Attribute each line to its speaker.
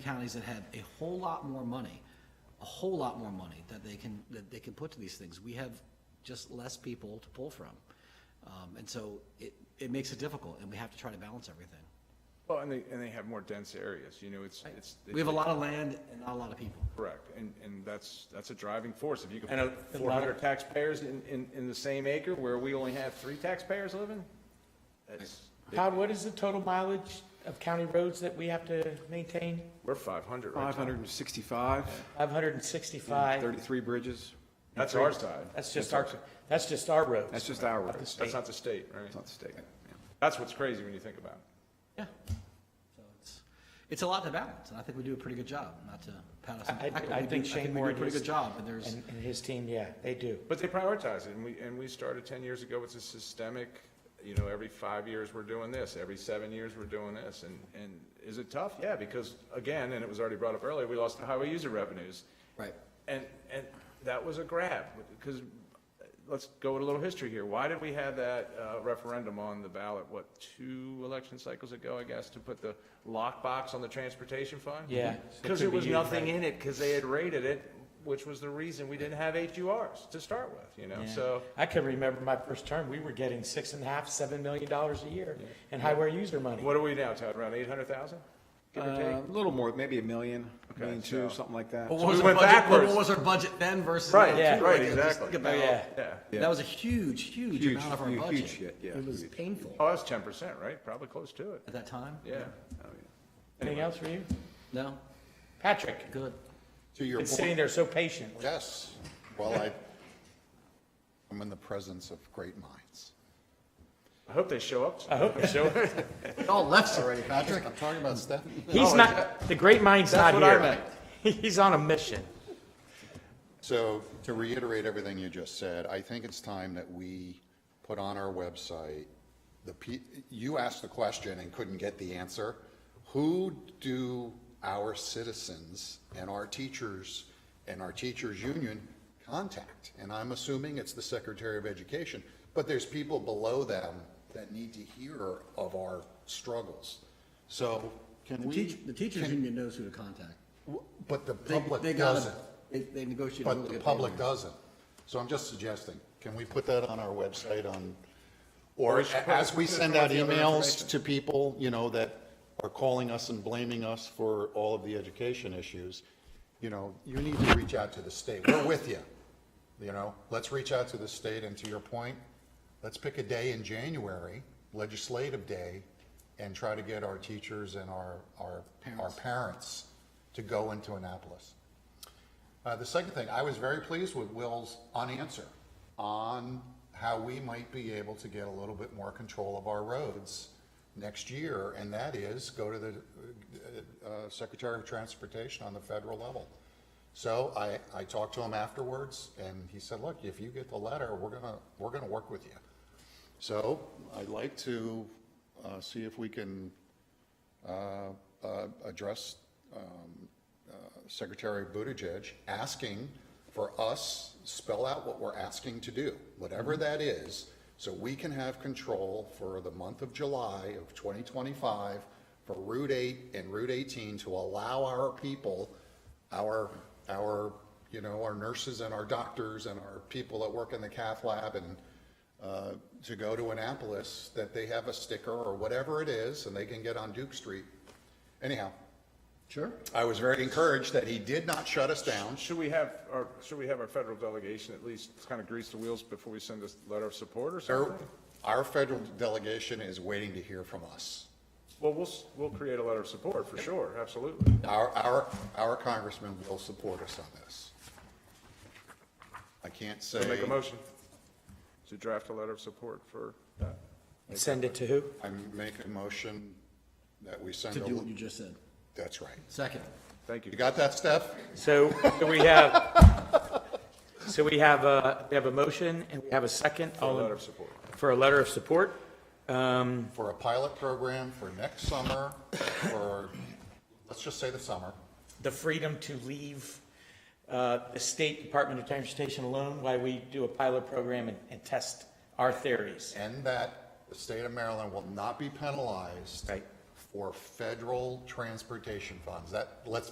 Speaker 1: counties that have a whole lot more money, a whole lot more money that they can, that they can put to these things. We have just less people to pull from. Um, and so it, it makes it difficult and we have to try to balance everything.
Speaker 2: Well, and they, and they have more dense areas, you know, it's, it's.
Speaker 1: We have a lot of land and not a lot of people.
Speaker 2: Correct, and, and that's, that's a driving force, if you can. And four hundred taxpayers in, in, in the same acre where we only have three taxpayers living? That's,
Speaker 3: Todd, what is the total mileage of county roads that we have to maintain?
Speaker 2: we're five hundred right now.
Speaker 4: 565,
Speaker 3: 565,
Speaker 4: 33 bridges.
Speaker 2: That's our side,
Speaker 3: that's just our, that's just our roads.
Speaker 4: That's just our
Speaker 3: not the
Speaker 4: roads.
Speaker 2: that's
Speaker 3: state.
Speaker 2: not the state, right?
Speaker 4: It's not the state. yeah.
Speaker 2: That's what's crazy when you think about it.
Speaker 1: Yeah. So it's, it's a lot to balance and I think we do a pretty good job, not to pat us on the
Speaker 3: I- I-
Speaker 1: back. but
Speaker 3: I
Speaker 1: we do-
Speaker 3: think Shane
Speaker 1: we do
Speaker 3: Moore
Speaker 1: a pretty
Speaker 3: is-
Speaker 1: good job and there's.
Speaker 3: And, and his team, yeah, they do.
Speaker 2: But they prioritize it, and we, and we started ten years ago, it's a systemic, you know, every five years we're doing this, every seven years we're doing this, and, and is it tough? Yeah, because, again, and it was already brought up earlier, we lost the highway user revenues.
Speaker 1: Right.
Speaker 2: And, and that was a grab, because, let's go with a little history here. Why did we have that uh, referendum on the ballot, what, two election cycles ago, I guess, to put the lockbox on the transportation fund?
Speaker 3: Yeah.
Speaker 2: Because
Speaker 3: It
Speaker 2: there
Speaker 3: could
Speaker 2: was
Speaker 3: be
Speaker 2: nothing
Speaker 3: used,
Speaker 2: in it, because they had rated it, which was the reason we didn't have HURs to start with, you know,
Speaker 3: Yeah.
Speaker 2: so.
Speaker 3: I can remember my first term, we were getting six and a half, seven million dollars a year in highway user money.
Speaker 2: What are we now, Todd, around eight hundred thousand? Give or
Speaker 4: Uh,
Speaker 2: take?
Speaker 4: A little more, maybe a million,
Speaker 2: Okay,
Speaker 4: million two,
Speaker 2: so- Oh,
Speaker 4: something like that.
Speaker 1: What
Speaker 2: So
Speaker 1: was
Speaker 2: we
Speaker 1: our
Speaker 2: went
Speaker 1: budget-
Speaker 2: backwards.
Speaker 1: What was our budget then versus?
Speaker 2: Right,
Speaker 1: now,
Speaker 3: Yeah.
Speaker 1: too?
Speaker 2: right,
Speaker 1: Like, just
Speaker 2: exactly.
Speaker 1: think about-
Speaker 3: Oh, yeah.
Speaker 2: Yeah.
Speaker 1: That was a huge, huge
Speaker 4: Huge,
Speaker 1: amount of our
Speaker 4: huge,
Speaker 1: budget.
Speaker 4: huge hit, yeah,
Speaker 1: It was
Speaker 4: huge.
Speaker 1: painful
Speaker 2: Oh, that's ten percent, right? Probably close to it,
Speaker 1: at that time.
Speaker 2: yeah.
Speaker 4: Oh, yeah.
Speaker 3: Anything else for you?
Speaker 1: No,
Speaker 3: Patrick,
Speaker 1: good.
Speaker 5: To your
Speaker 3: been sitting
Speaker 5: point,
Speaker 3: there so patiently.
Speaker 5: yes. Well, I, I'm in the presence of great minds.
Speaker 2: I hope they show up.
Speaker 3: I hope so.
Speaker 1: All left
Speaker 5: Sorry, Patrick, I'm talking about Steph.
Speaker 3: He's not, the great mind's not
Speaker 2: That's
Speaker 3: here.
Speaker 2: what I meant.
Speaker 3: He's on a mission.
Speaker 5: So to reiterate everything you just said, I think it's time that we put on our website, the, pe- you asked the question and couldn't get the answer. Who do our citizens and our teachers and our teachers union contact? And I'm assuming it's the Secretary of Education, but there's people below them that need to hear of our struggles. So can
Speaker 1: The
Speaker 5: we?
Speaker 1: teach, the teachers
Speaker 5: can-
Speaker 1: union knows who to contact.
Speaker 5: w- But the
Speaker 1: They, they
Speaker 5: public
Speaker 1: got
Speaker 5: doesn't.
Speaker 1: it. They, they negotiate. who
Speaker 5: But
Speaker 1: to
Speaker 5: the
Speaker 1: get
Speaker 5: public
Speaker 1: paid.
Speaker 5: doesn't. So I'm just suggesting, can we put that on our website on,
Speaker 2: Or
Speaker 5: or
Speaker 2: we should put-
Speaker 5: as we
Speaker 2: put
Speaker 5: send
Speaker 2: some
Speaker 5: out
Speaker 2: of the other
Speaker 5: emails
Speaker 2: information.
Speaker 5: to people, you know, that are calling us and blaming us for all of the education issues, you know, you need to reach out to the state. We're with you. You know, let's reach out to the state and to your point, let's pick a day in January, legislative day, and try to get our teachers and our, our, our parents to go into Annapolis. Uh, the second thing, I was very pleased with Will's unanswer on how we might be able to get a little bit more control of our roads next year, and that is go to the uh, uh, Secretary of Transportation on the federal level. So I, I talked to him afterwards, and he said, look, if you get the letter, we're gonna, we're gonna work with you. So I'd like to uh, see if we can uh, uh, address um, uh, Secretary Buttigieg asking for us, spell out what we're asking to do, whatever that is, so we can have control for the month of July of 2025 for Route 8 and Route 18 to allow our people, our, our, you know, our nurses and our doctors and our people that work in the cath lab and uh, to go to Annapolis, that they have a sticker or whatever it is, and they can get on Duke Street. Anyhow,
Speaker 1: Sure.
Speaker 5: I was very encouraged that he did not shut us down.
Speaker 2: Should we have, our should we have our federal delegation at least kind of grease the wheels before we send this letter of support or
Speaker 5: Our,
Speaker 2: something?
Speaker 5: our federal delegation is waiting to hear from us.
Speaker 2: Well, we'll, s- we'll create a letter of support for sure, absolutely.
Speaker 5: Our, our, our congressman will support us on this. I can't say.
Speaker 2: So make a motion to draft a letter of support for that.
Speaker 3: Send it to who?
Speaker 5: I make a motion that we send
Speaker 1: To do what you
Speaker 5: a,
Speaker 1: just said.
Speaker 5: that's right.
Speaker 1: Second.
Speaker 2: Thank
Speaker 5: You
Speaker 2: you.
Speaker 5: got that, Steph?
Speaker 3: So so we have, so we have, uh, we have a motion and we have a second.
Speaker 2: A
Speaker 3: all in-
Speaker 2: letter of support.
Speaker 3: For a letter of support. Um,
Speaker 5: For a pilot program for next summer, or, let's just say the summer.
Speaker 3: The freedom to leave uh, the State Department of Transportation alone while we do a pilot program and- and test our theories.
Speaker 5: and that the state of Maryland will not be penalized
Speaker 3: Right.
Speaker 5: for federal transportation funds. That, let's